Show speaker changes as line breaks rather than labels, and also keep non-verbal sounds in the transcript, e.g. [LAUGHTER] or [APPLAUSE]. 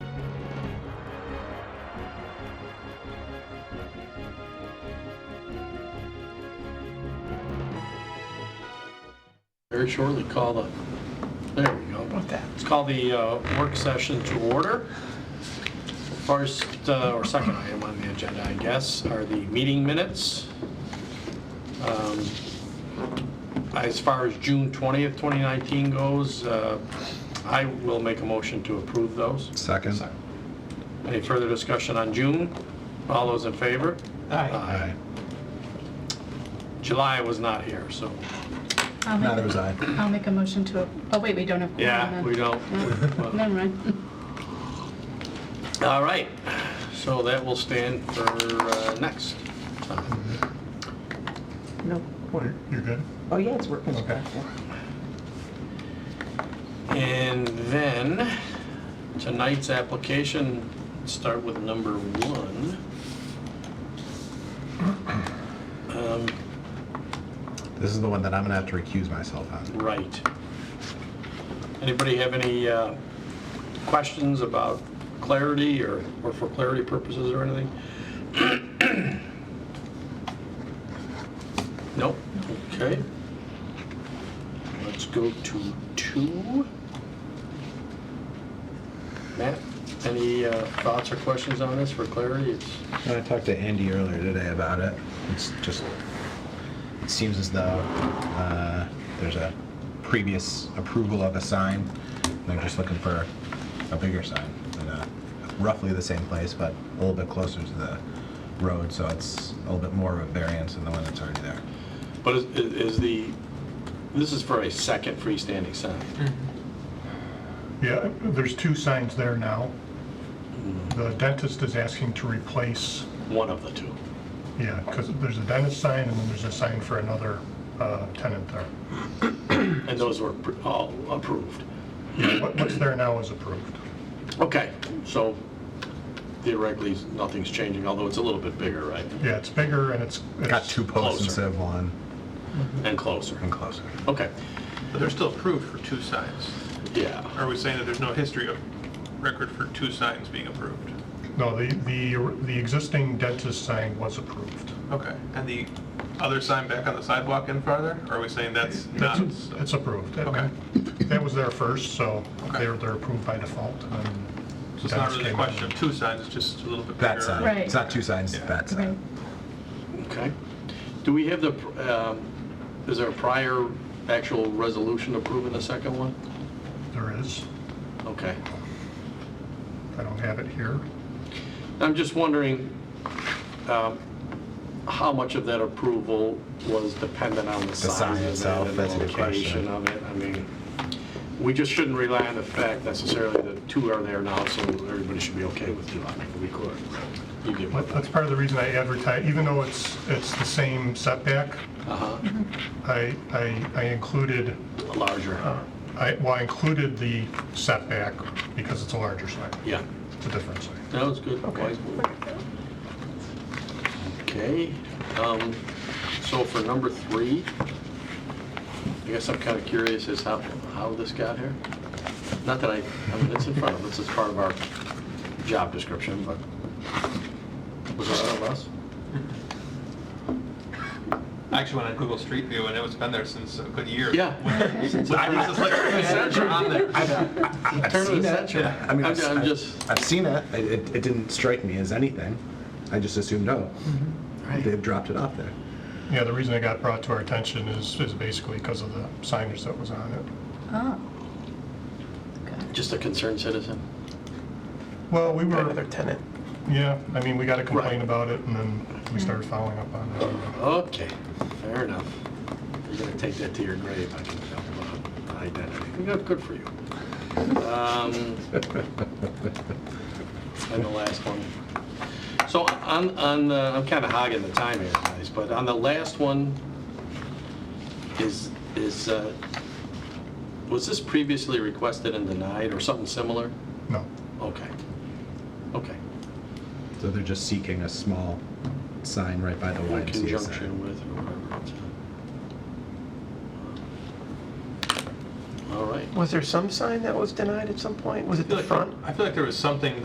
Very shortly call the, there we go.
What that?
Let's call the uh, work session to order. First, uh, or second item on the agenda, I guess, are the meeting minutes. Um, As far as June 20th, 2019 goes, uh, I will make a motion to approve those.
Second.
Any further discussion on June? All those in favor?
Aye.
Aye.
July was not here, so,
I'll make-
Neither was I.
I'll make a motion to, oh wait, we don't have. quorum
yeah,
then.
we don't. [LAUGHS]
No, Never mind.
All right, so that will stand for uh, next. time.
No.
You're good?
Oh, yeah, it's working.
Okay.
And then, tonight's application, start with number one. Um,
This is the one that I'm gonna have to recuse myself on.
Right. Anybody have any uh, questions about clarity or or for clarity purposes or anything? [COUGHS] Nope, okay. Let's go to two. Matt, any uh, thoughts or questions on this for clarity? It's
When I talked to Andy earlier today about it, it's just, it seems as though uh, there's a previous approval of a sign. and They're just looking for a bigger sign in a- roughly the same place, but a little bit closer to the road, so it's a little bit more of a variance than the one that's already there.
But is- is the, this is for a second freestanding sign.
Yeah, there's two signs there now. The dentist is asking to replace,
one of the two.
yeah, because there's a dentist sign and then there's a sign for another uh, tenant there.
And those were appro- all approved.
What- What's there now is approved.
Okay, so theoretically, nothing's changing, although it's a little bit bigger, right?
Yeah, it's bigger and it's. it's-
Got two posts
Closer.
instead of one,
And closer.
and closer.
Okay,
But they're still approved for two signs.
yeah.
Are we saying that there's no history of record for two signs being approved?
No, the, the, the existing dentist sign was approved.
Okay, and the other sign back on the sidewalk in farther, are we saying that's not?
It's it's approved.
Okay.
That was there first, so
Okay.
they're, they're approved by default. and then
So it's not
dentist
really a
came in.
question of two signs, it's just a little bit bigger.
That sign.
Right.
It's not two signs,
Yeah.
that sign.
Right.
Okay. Do we have the, um, is there a prior actual resolution approving the second one?
There is.
Okay.
I don't have it here.
I'm just wondering um, how much of that approval was dependent on the
sign
size of
itself,
it and
that's a
the
good question.
location of it. I mean, we just shouldn't rely on the fact necessarily that two are there now, so everybody should be okay with two. I mean, we could. You get my
That- That's
point.
part of the reason I advertise, even though it's, it's the same setback,
Uh-huh.
I, I, I included,
A Larger,
I, well, I included the setback because it's a larger sign,
yeah.
it's a different sign.
That was good. Wise move. Okay, um, so for number three, I guess I'm kind of curious as how, how this got here. Not that I, I mean, it's in front of us, it's part of our job description, but was it out of us?
I actually went on Google Street View, and it was been there since a good year.
Yeah.
[LAUGHS] I was just like, "Is that on there?"
[LAUGHS] I've
Turn of
seen
the
it.
century.
Yeah, I mean,
I'm
I've,
ju- I'm
I've-
just-
I've seen it. I- It, it didn't strike me as anything. I just assumed, oh,
Mm-hmm.
they've dropped it off there.
Yeah, the reason it got brought to our attention is, is basically because of the signage that was on it.
Oh. Okay.
Just a concerned citizen.
Well, we
Another
were,
tenant.
yeah, I mean, we got a
Right.
complaint about it and then we started following up on it.
Okay, fair enough. You're gonna take that to your grave, I can tell about identity. Good, good for you. Um, And the last one. So on, on, the- I'm kind of hogging the time here, guys, but on the last one, is, is, uh, was this previously requested and denied or something similar?
No,
Okay, okay.
So they're just seeking a small sign right by the
In
YMCA
conjunction
sign.
with or whatever. it's, uh, All right.
Was there some sign that was denied at some point? Was it
I feel
the
like-
front?
I feel like there was something